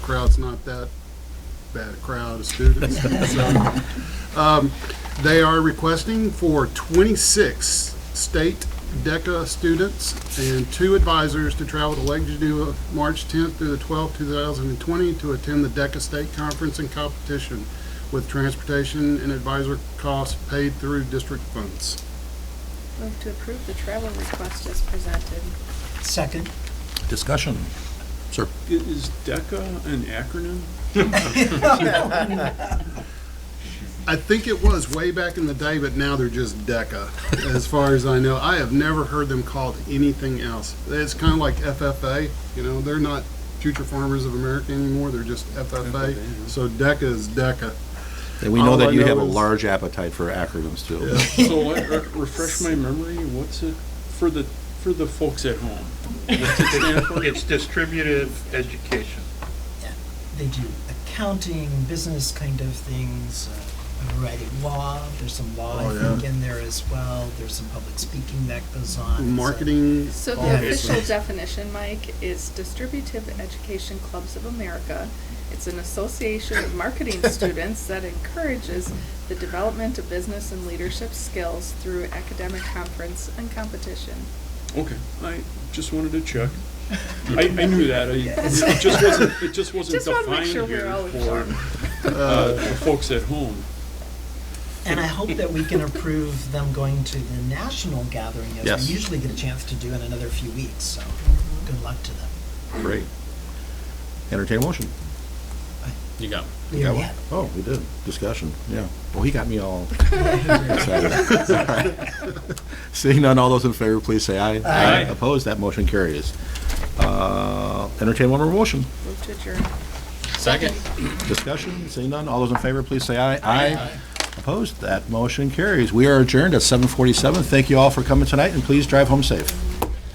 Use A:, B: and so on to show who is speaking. A: crowd's not that bad a crowd of students. So, um, They are requesting for 26 state DECA students and two advisors to travel to Lake Geneva, March 10th through the 12th, 2020, to attend the DECA State Conference and Competition with transportation and advisor costs paid through district funds.
B: Move to approve the travel request as presented.
C: Second.
D: Discussion. Sir,
E: I- Is DECA an acronym?
A: I think it was way back in the day, but now they're just DECA, as far as I know. I have never heard them called anything else. It's kind of like FFA, you know, they're not Future Farmers of America anymore, they're just FFA. So DECA is DECA.
F: And we know
A: All I
F: that you
A: know
F: have a
A: is-
F: large appetite for acronyms too.
E: So let- re- refresh my memory, what's it, for the, for the folks at home? What's it stand for?
G: It's distributive education.
C: They do accounting, business kind of things, uh, a variety of law, there's some law, I
A: Oh,
C: think, in there as well, there's some public speaking that goes on. so-
A: Marketing,
B: So the
A: obviously.
B: official definition, Mike, is Distributive Education Clubs of America. It's an association of marketing students that encourages the development of business and leadership skills through academic conference and competition.
E: Okay, I just wanted to check. I, I knew that, I, it just wasn't, it just wasn't
B: Just wanna make
E: defined
B: sure we're
E: here
B: all
E: for,
B: informed.
E: uh, the folks at home.
C: And I hope that we can approve them going to the national gathering, as
F: Yes.
C: we usually get a chance to do in another few weeks, so good luck to them.
F: Great. Entertain a motion.
H: You got
F: You got one?
C: Yeah.
F: Oh, we did. Discussion, yeah. Well, he got me all excited. Seeing none, all those in favor, please say aye.
E: Aye.
F: Opposed, that motion carries. Uh, Entertain one more motion.
B: Move to adjourn.
H: second.
F: Discussion, seeing none, all those in favor, please say aye. Aye. Opposed, that motion carries. We are adjourned at 7:47. Thank you all for coming tonight, and please drive home safe.